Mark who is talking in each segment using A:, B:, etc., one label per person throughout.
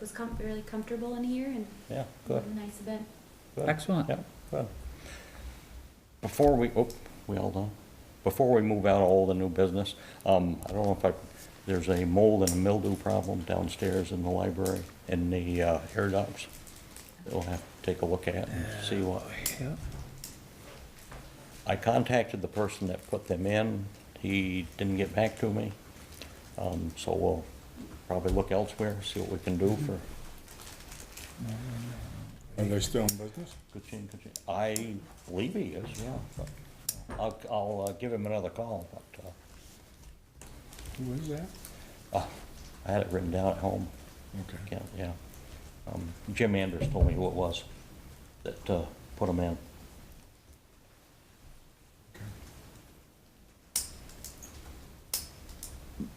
A: was com- really comfortable in here and
B: yeah,
A: it
B: good,
A: was a nice event.
B: good,
C: Excellent.
B: yeah, good. Before we, oh, we all done? Before we move out of all the new business, um, I don't know if I, there's a mold and mildew problem downstairs in the library, in the, uh, air ducts. that We'll have to take a look at and see what,
C: Uh, Yeah.
B: I contacted the person that put them in. He didn't get back to me. Um, so we'll probably look elsewhere, see what we can do for.
D: Are they still in business?
B: Kuchin, kuchin. I believe he is, yeah. but I'll, I'll uh, give him another call, but, uh,
D: Who is that?
B: uh, I had it written down at home.
D: Okay.
B: Can't, yeah. Um, Jim Anders told me who it was that, uh, put them in.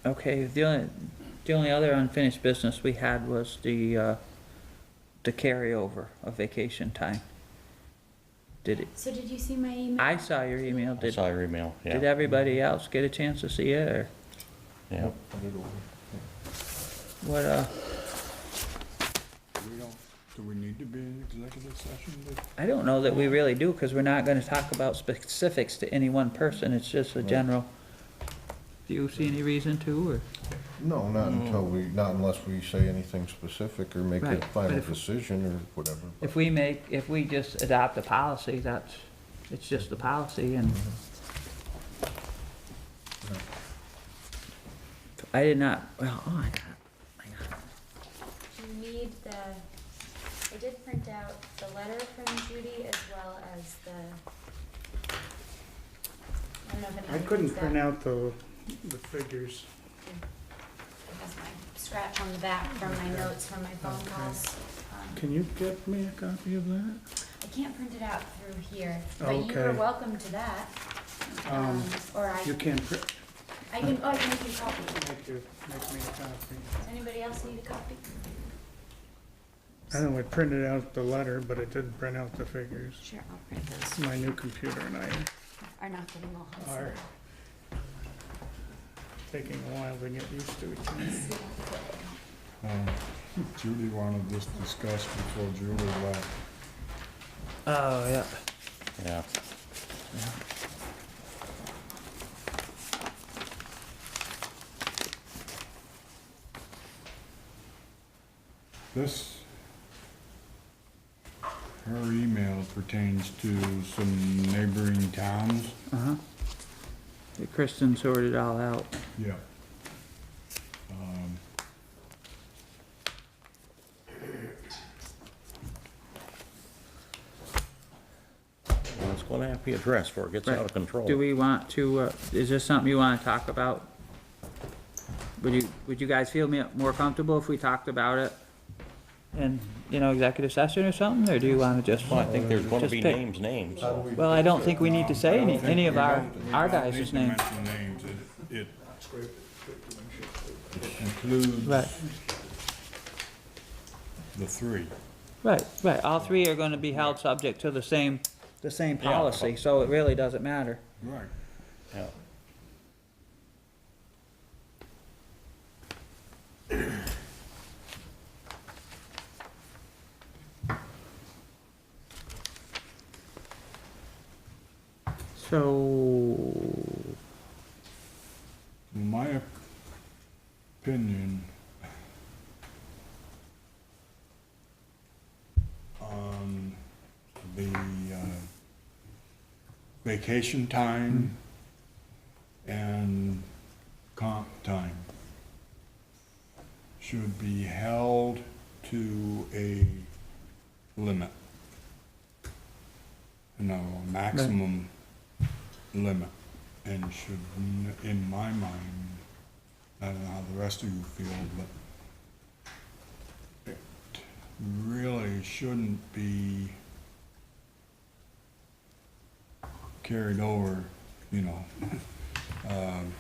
C: Okay, the only, the only other unfinished business we had was the, uh, the carryover of vacation time. Did it,
A: So did you see my email?
C: I saw your email,
B: I
C: did,
B: saw your email, yeah.
C: did everybody else get a chance to see it, or
B: Yeah.
C: what, uh,
D: Do we don't, do we need to be in executive session? to-
C: I don't know that we really do, cause we're not gonna talk about specifics to any one person, it's just a general. Do you see any reason to, or?
E: No, not until we, not unless we say anything specific or make a
C: Right, but
E: final
C: if-
E: decision or whatever.
C: If we make, if we just adopt a policy, that's, it's just a policy and. I did not, well, oh, I got, I got,
A: Do you need the, I did print out the letter from Judy as well as the, I don't know if anyone
F: I
A: needs
F: couldn't
A: that.
F: print out the, the figures.
A: It has my scratch on the back from my notes from my phone
F: Okay.
A: calls. Um,
F: Can you get me a copy of that?
A: I can't print it out through here, but you are
F: Okay.
A: welcome to that.
F: Um,
A: Or I,
F: You can print,
A: I can, oh, I can make you a copy.
F: make you, make me a copy.
A: Does anybody else need a copy?
F: I know I printed out the letter, but I didn't print out the figures.
A: Sure, I'll print those.
F: My new computer and I
A: Are not getting all hot.
F: are taking a while to get used to it.
D: Um, Judy wanted this discussed before Julie left.
C: oh, yeah.
B: Yeah.
D: This, her email pertains to some neighboring towns.
C: Uh-huh. That Kristen sorted all out.
D: Yeah. Um,
B: Well, it's gonna have to be addressed or it gets out of
C: Right.
B: control.
C: Do we want to, uh, is this something you wanna talk about? Would you, would you guys feel me- more comfortable if we talked about it in, you know, executive session or something, or do you wanna just?
B: Well, I think there's gonna
C: Just
B: be
C: pick.
B: names, names.
E: How do we
C: Well, I
E: fix
C: don't
E: it?
C: think we need to say any, any of our, our guys'
D: name.
C: names.
D: Mention names, it, it includes
C: Right,
D: the three.
C: right, right. All three are gonna be held subject to the same, the same
B: Yeah.
C: policy, so it really doesn't matter.
D: Right.
B: Yeah.
C: So,
D: In my opinion, on um, the uh, vacation time and comp time should be held to a limit. No, a maximum limit and should, n- in my mind, I don't know how the rest of you feel, but it really shouldn't be carried over, you know. Um,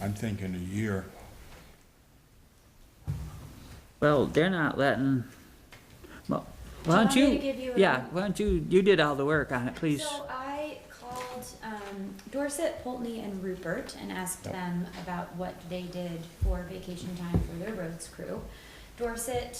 D: I'm thinking a year.
C: well, they're not letting, well, why don't
A: Do you want me
C: you,
A: to give you a-
C: yeah, why don't you, you did all the work on it, please.
A: So I called um, Dorset, Pulteney, and Rupert and asked
B: Yep.
A: them about what they did for vacation time for their roads crew. Dorset